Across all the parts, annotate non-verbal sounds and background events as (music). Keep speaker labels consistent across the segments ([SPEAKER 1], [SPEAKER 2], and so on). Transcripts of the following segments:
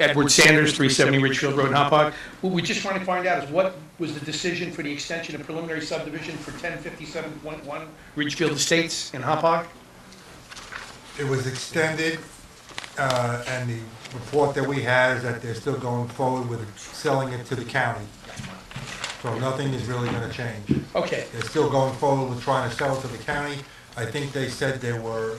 [SPEAKER 1] Edward Sanders, 370 Ridgefield Road, Hopog. What we just want to find out is what was the decision for the extension of preliminary subdivision for 1057.1 Ridgefield Estates in Hopog?
[SPEAKER 2] It was extended, uh, and the report that we had is that they're still going forward with selling it to the county. So nothing is really gonna change.
[SPEAKER 1] Okay,
[SPEAKER 2] They're still going forward with trying to sell it to the county. I think they said they were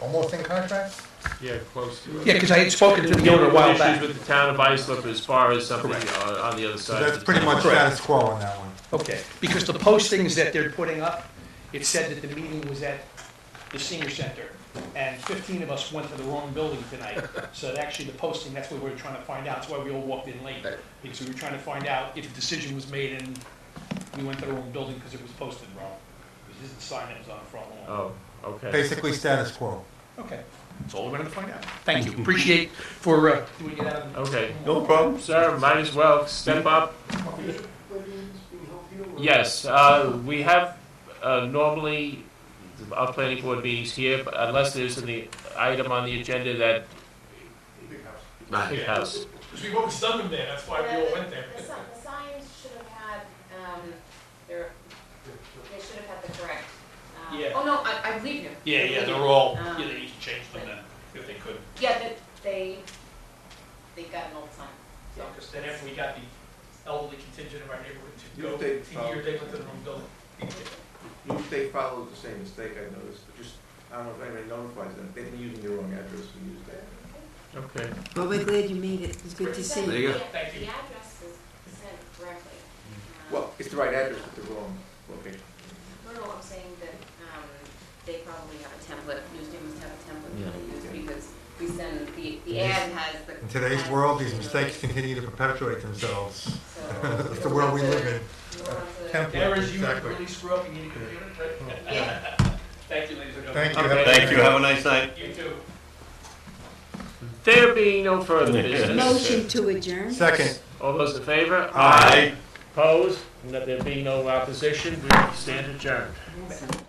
[SPEAKER 2] almost in contract?
[SPEAKER 3] Yeah, close to it.
[SPEAKER 1] yeah, because I had spoken to the owner a while back.
[SPEAKER 3] Issues with the town of Islip as far as something on on the other
[SPEAKER 2] So
[SPEAKER 3] side. of
[SPEAKER 2] that's
[SPEAKER 3] the
[SPEAKER 2] pretty
[SPEAKER 3] town.
[SPEAKER 2] much status quo on that one.
[SPEAKER 1] Okay, because the postings that they're putting up, it said that the meeting was at the senior center, and 15 of us went to the wrong building tonight. So that actually, the posting, that's what we were trying to find out, that's why we all walked in late, because we were trying to find out if a decision was made and we went to the wrong building because it was posted wrong. Because this is the sign that was on the front lawn.
[SPEAKER 3] Oh, okay.
[SPEAKER 2] Basically status quo.
[SPEAKER 1] Okay, that's Oh. all we're gonna find out. Thank you, appreciate for uh, doing it out of the...
[SPEAKER 3] Okay.
[SPEAKER 2] No problem.
[SPEAKER 3] Sir, might as well step up. Yes, uh, we have uh, normally our planning board meetings here, but unless there's an item on the agenda that. Big house.
[SPEAKER 1] Because we always done them there, that's why
[SPEAKER 4] Yeah, the- The si- the signs should have had, um, their, they should have had the correct, um,
[SPEAKER 1] Yeah.
[SPEAKER 4] oh no, I, I believe you.
[SPEAKER 1] Yeah,
[SPEAKER 4] I
[SPEAKER 1] yeah,
[SPEAKER 4] believe
[SPEAKER 1] they're
[SPEAKER 4] you.
[SPEAKER 1] all,
[SPEAKER 4] Um,
[SPEAKER 1] yeah, they need to change them then, if they could.
[SPEAKER 4] Yeah, that, they, they got an old sign, so.
[SPEAKER 1] Because then after we got the elderly contingent of our neighborhood to
[SPEAKER 5] You
[SPEAKER 1] go,
[SPEAKER 5] think,
[SPEAKER 1] to year they went to the wrong building.
[SPEAKER 5] Each they followed the same mistake I noticed, but just, I don't know if anybody notifies them, they've been using the wrong address, we used that.
[SPEAKER 3] Okay.
[SPEAKER 6] Well, we're glad you made it. It was good to see
[SPEAKER 4] Sent-
[SPEAKER 6] you.
[SPEAKER 4] yeah,
[SPEAKER 1] Thank you.
[SPEAKER 4] The address is sent correctly. Um,
[SPEAKER 5] Mm. Well, it's the right address, but the wrong location.
[SPEAKER 4] No, no, I'm saying that, um, they probably have a template, newsrooms have a template that they use because we send, the, the ad has the.
[SPEAKER 2] In today's
[SPEAKER 4] has,
[SPEAKER 2] world, these
[SPEAKER 4] you know,
[SPEAKER 2] mistakes continue to perpetuate themselves. (laughs)
[SPEAKER 4] So.
[SPEAKER 2] That's the world we live in.
[SPEAKER 4] You don't want to-
[SPEAKER 2] Template,
[SPEAKER 1] Errors you
[SPEAKER 2] exactly.
[SPEAKER 1] really screw up and you need to computer, right?
[SPEAKER 4] Yeah.
[SPEAKER 1] Thank you, ladies and gentlemen.
[SPEAKER 2] Thank you.
[SPEAKER 3] Okay.
[SPEAKER 7] Thank you, have a nice night.
[SPEAKER 1] You too.
[SPEAKER 3] There being no
[SPEAKER 1] (laughs)
[SPEAKER 3] further business.
[SPEAKER 6] Motion to adjourn?
[SPEAKER 2] Second.
[SPEAKER 3] All those in favor? Opposed? There being no opposition, we stand adjourned.
[SPEAKER 6] Awesome.